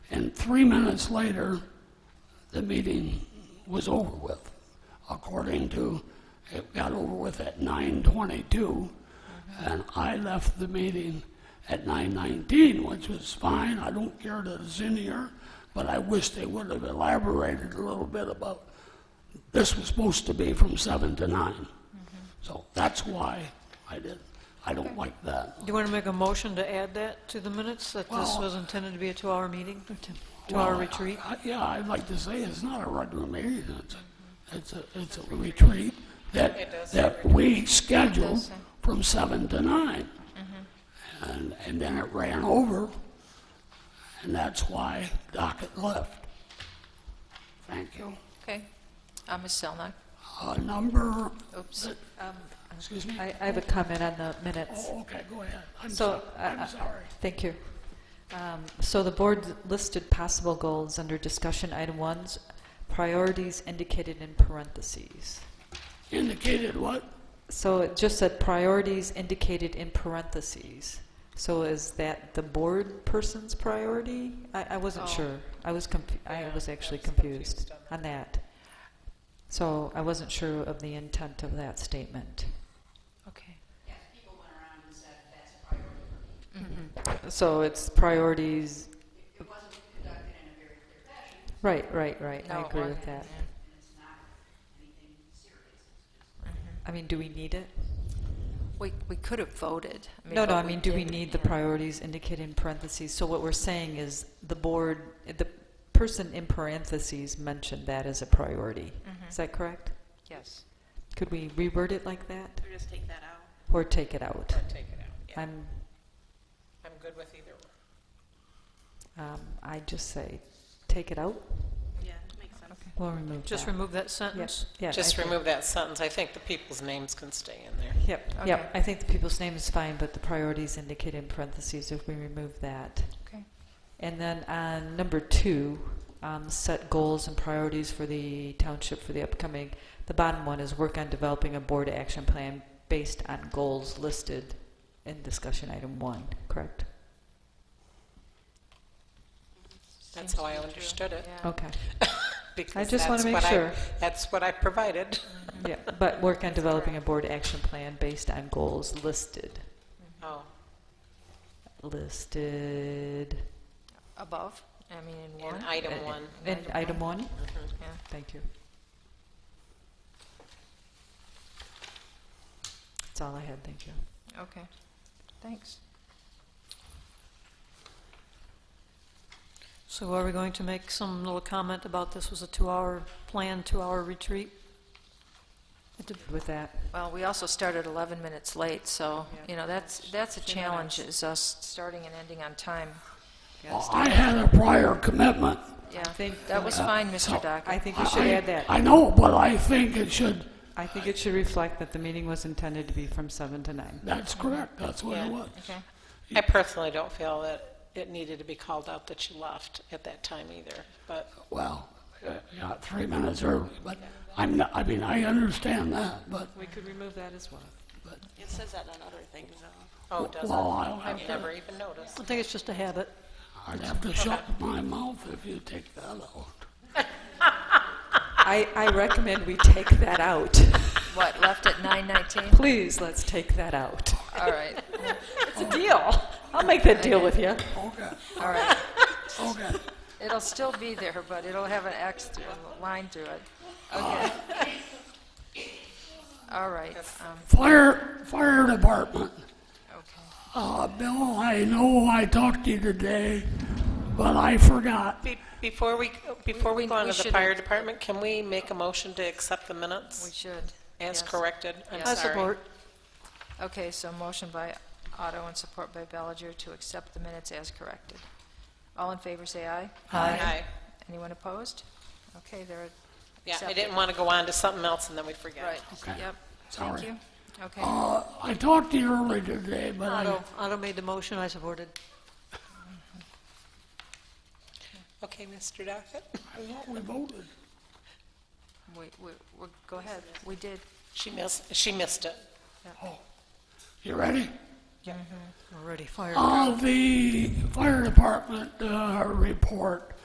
And three minutes later, the meeting was over with, according to, it got over with at 9:22, and I left the meeting at 9:19, which was fine, I don't care that it's in here, but I wish they would have elaborated a little bit about, this was supposed to be from 7 to 9. So that's why I did, I don't like that. Do you want to make a motion to add that to the minutes, that this Well- was intended to be a two-hour meeting, or two- two-hour Well, retreat? I- I- Yeah, I'd like to say it's not a regular meeting, it's a, it's a, it's a retreat that, that we scheduled from seven to nine. Mm-hmm. And, and then it ran over, and that's why docket left. Thank you. Okay. Uh, Ms. Zelnok? Uh, number, Oops. Um, excuse me? I, I have a comment on the minutes. Oh, okay, go ahead. I'm So, uh, so- I- I- I'm sorry. Thank you. Um, So the board listed possible goals under discussion item one's priorities indicated in parentheses. Indicated what? So it just said priorities indicated in parentheses. So is that the board person's priority? I, I wasn't sure. I was confu- I was actually confused on that. So I wasn't sure of the intent of that statement. Okay. So it's priorities. It wasn't conducted in a very clear fashion. Right, right, right. No, I it agree with wasn't, that. yeah. I mean, do we need it? We, we could have voted. No, no, but I mean, do we didn't, need the yeah. priorities indicated in parentheses? So what we're saying is the board, the person in parentheses mentioned that as a priority. Mm-hmm. Is that correct? Yes. Could we reword it like that Or just take that out, or take it out? or take it out, yeah. I'm, I'm good with either one. um, I just say, take it out. Yeah, makes sense. We'll remove that. Just remove that Yes. sentence? Yeah. Just I think- remove that sentence, I think the people's names can stay in there. Yep, Okay. yep. I think the people's name is fine, but the priorities indicated in parentheses if we remove that. Okay. And then on number two, um, set goals and priorities for the township for the upcoming. The bottom one is work on developing a board action plan based on goals listed in discussion item one, correct? That's how I understood it. Yeah. Okay, because just wanna that's make what I- sure. That's what I provided. yeah, but work on developing a board action plan based on goals listed, Oh, listed Above, I mean, in one? in item one. in Item item one. Mhm. Yeah. Thank you. That's all I had, thank you. Okay. Thanks. So are we going to make some little comment about this was a two-hour plan, two-hour retreat? With that, Well, we also started 11 minutes late, so, you know, that's, that's a challenge, is us starting and ending on time. Well, I had a prior commitment. Yeah, think- that was fine, Mr. I Dockett. think you should I- add that. I know, but I think it should, I think it should reflect that the meeting was intended to be from seven to nine. that's correct, that's what it was. Okay. I personally don't feel that it needed to be called out that you left at that time either, but Well, uh, yeah, three minutes early, but I'm not, I mean, I understand that, but, We could remove that as well. It says that on other things, though. Oh, it does well, I'll not have I've never even noticed. I think it's just a habit. I'd have to shut my mouth if you take that out. I, I recommend we take that out. What, left at 9:19? Please, let's take that out. All right, It's a deal. I'll make that deal with you. Okay, all right. okay. It'll still be there, but it'll have an X through, a line through it. Okay. All right, um, Fire, fire department. okay. Uh, Bill, I know I talked to you today, but I forgot. Be- Before we, before we We- go on we to the should- fire department, can we make a motion to accept the We minutes should. as yes. corrected? I'm Yes. I sorry. support. Okay, so motion by Otto and support by Bellinger to accept the minutes as corrected. All in favor, say aye. Aye. Anyone opposed? Okay, there. Yeah, I didn't want to go on to something else and then we forget. Right, Okay. yep. Sorry. Thank you. Okay, Uh, I talked to you earlier today, but I, Otto, Otto made the motion, I supported. Okay, Mr. Dockett? I thought we voted. we, we, we- go ahead. We did. She missed, she missed it. You ready? Already fired. On the fire department uh, report,